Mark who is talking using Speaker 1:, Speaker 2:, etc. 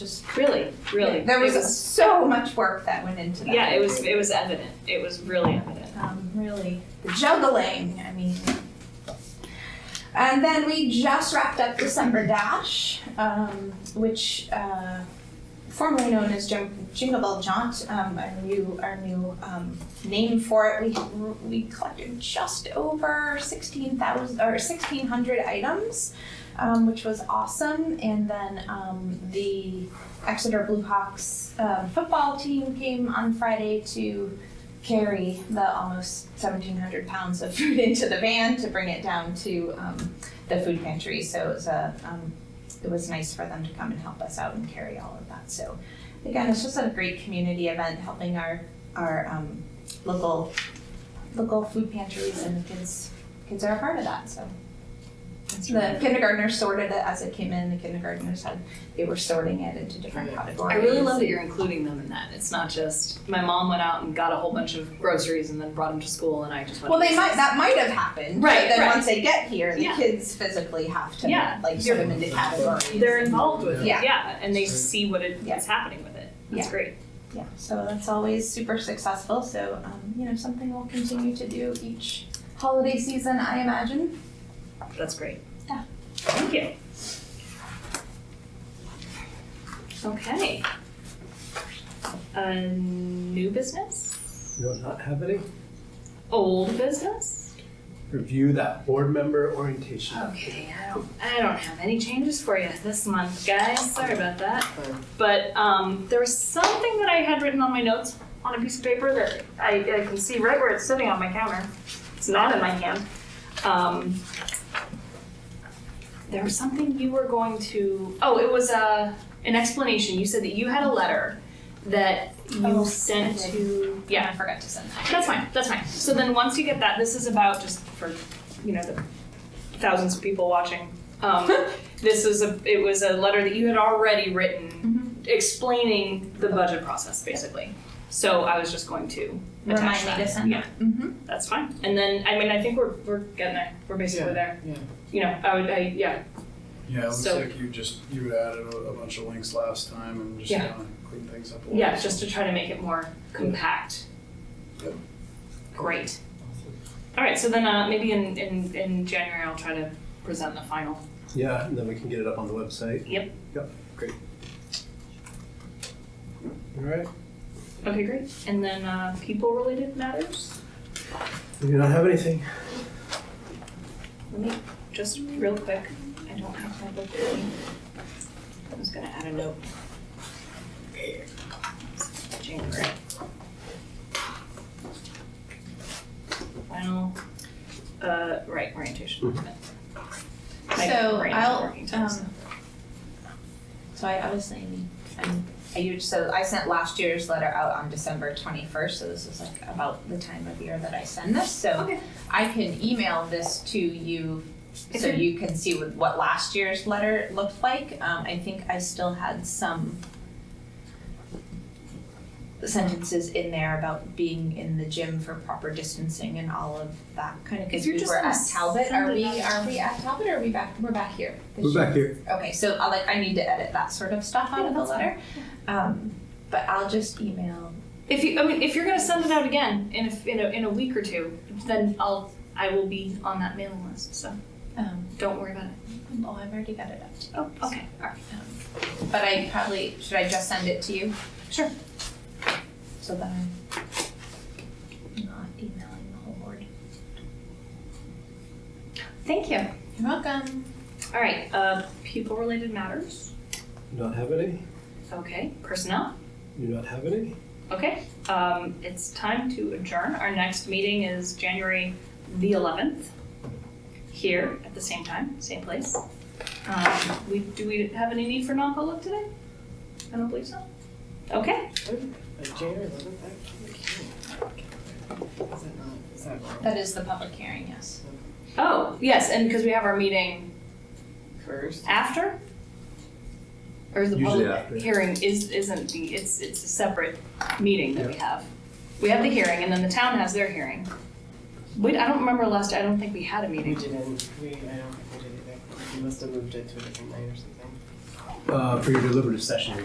Speaker 1: just really, really.
Speaker 2: There
Speaker 1: it
Speaker 2: was so much work that went into that.
Speaker 1: Yeah, it was, it was evident. It was really evident.
Speaker 2: Um, really, the juggling, I mean. And then we just wrapped up December Dash, um, which, uh, formerly known as Jim- Jingle Bell Jaunt, um, our new, our new, um, name for it. We, we collected just over sixteen thousand, or sixteen hundred items, um, which was awesome. And then, um, the Exeter Blue Hawks, um, football team came on Friday to carry the almost 1,700 pounds of food into the van to bring it down to um, the food pantry. So it was a, um, it was nice for them to come and help us out and carry all of that. So again, it's just a great community event, helping our our um, local local food pantries and the kids kids are a part of that. So. The kindergartners sorted it as it came in. The kindergartners had they were sorting it into different
Speaker 1: I
Speaker 2: categories.
Speaker 1: really love that you're including them in that. It's not just, my mom went out and got a whole bunch of groceries and then brought them to school and I just went.
Speaker 2: Well, they might. That might have happened. but
Speaker 1: Right,
Speaker 2: then
Speaker 1: right.
Speaker 2: once they get here, the
Speaker 1: Yeah.
Speaker 2: kids physically have to
Speaker 1: Yeah.
Speaker 2: like put
Speaker 1: You're-
Speaker 2: them into categories.
Speaker 1: They're involved with it,
Speaker 2: Yeah.
Speaker 1: yeah, and they see what it-
Speaker 2: Yeah.
Speaker 1: what's happening with it. That's
Speaker 2: Yeah.
Speaker 1: great.
Speaker 2: yeah. So that's always super successful. So um, you know, something we'll continue to do each holiday season, I imagine.
Speaker 1: That's great.
Speaker 2: Yeah.
Speaker 1: Thank you. Okay. Uh, new business?
Speaker 3: You don't not have any?
Speaker 1: Old business?
Speaker 3: Review that board member orientation.
Speaker 1: Okay, I don't, I don't have any changes for you this month, guys. Sorry about that. But um, there was something that I had written on my notes on a piece of paper that I, I can see right where it's sitting on my counter. It's not in my hand. Um, there was something you were going to. Oh, it was uh, an explanation. You said that you had a letter that you
Speaker 2: Oh,
Speaker 1: sent
Speaker 2: I did.
Speaker 1: to. Yeah,
Speaker 2: I forgot to send that.
Speaker 1: that's fine. That's fine. So then once you get that, this is about just for you know the thousands of people watching. Um, this is a it was a letter that you had already written
Speaker 2: Mm-hmm.
Speaker 1: explaining the budget process basically. So I was just going to attach
Speaker 2: Remind me
Speaker 1: that.
Speaker 2: to send
Speaker 1: yeah,
Speaker 2: Mm-hmm.
Speaker 1: that's fine. And then I mean I think we're we're getting there. We're basically
Speaker 4: Yeah,
Speaker 1: there.
Speaker 4: yeah.
Speaker 1: You know I would I, yeah
Speaker 4: Yeah, it looks
Speaker 1: So-
Speaker 4: like you just, you added a, a bunch of links last time and just
Speaker 1: Yeah.
Speaker 4: kind of cleaned things up a little.
Speaker 1: yeah just to try to make it more compact.
Speaker 4: Yep.
Speaker 1: Great. All right. So then uh, maybe in, in in January I'll try to present the final.
Speaker 3: Yeah, and then we can get it up on the website.
Speaker 1: Yep.
Speaker 3: Yep, great. All right,
Speaker 1: Okay, great. And then uh, people related matters?
Speaker 3: we do not have anything.
Speaker 1: Let me just real quick. I don't have my book with me. I was gonna add a note. January. Final, uh, right, orientation. My
Speaker 2: So
Speaker 1: brain's
Speaker 2: I'll,
Speaker 1: working too, so-
Speaker 2: um, So I, I was saying, I'm, I used, so I sent last year's letter out on December twenty-first, so this is like about the time of year that I send this, so
Speaker 1: Okay.
Speaker 2: I can email this to you,
Speaker 1: If
Speaker 2: so
Speaker 1: you're-
Speaker 2: you can see what, what last year's letter looked like, um, I think I still had some sentences in there about being in the gym for proper distancing and all of that kind of,
Speaker 1: If
Speaker 2: cause
Speaker 1: you're
Speaker 2: we
Speaker 1: just
Speaker 2: were
Speaker 1: gonna
Speaker 2: at Talbot,
Speaker 1: send
Speaker 2: are
Speaker 1: it
Speaker 2: we,
Speaker 1: out-
Speaker 2: are we at Talbot or are we back, we're back here this
Speaker 3: We're
Speaker 2: year?
Speaker 3: back here.
Speaker 2: Okay, so I like I need to edit that sort of stuff out
Speaker 1: Yeah,
Speaker 2: of the
Speaker 1: that's fine.
Speaker 2: letter. Um, but I'll just email.
Speaker 1: If you, I mean, if you're gonna send it out again in a, in a, in a week or two, then I'll, I will be on that mailing list, so
Speaker 2: Um,
Speaker 1: don't worry about it.
Speaker 2: oh, I've already got it up.
Speaker 1: Oh, okay, all right.
Speaker 2: Um, but I probably should I just send it to you
Speaker 1: Sure.
Speaker 2: so that I'm not emailing the whole board.
Speaker 1: Thank you.
Speaker 2: You're welcome.
Speaker 1: All right, uh, people related matters.
Speaker 3: Do not have any?
Speaker 1: Okay, personnel.
Speaker 3: Do not have any?
Speaker 1: Okay, um, it's time to adjourn. Our next meeting is January the 11th here at the same time, same place. Um, we, do we have any need for non-public today? I don't believe so. Okay,
Speaker 5: January eleventh, I can't. Is that not, is that wrong?
Speaker 2: That is the public hearing, yes.
Speaker 1: oh, yes, and because we have our meeting
Speaker 5: First?
Speaker 1: after? Or is the
Speaker 3: Usually
Speaker 1: public
Speaker 3: after.
Speaker 1: hearing is, isn't the, it's, it's a separate meeting that we have. We have the hearing and then the town has their hearing. We, I don't remember last, I don't think we had a
Speaker 5: We
Speaker 1: meeting.
Speaker 5: didn't, we, I don't think we did either. We must have moved it to a different night or something.
Speaker 3: Uh, for your deliberative session,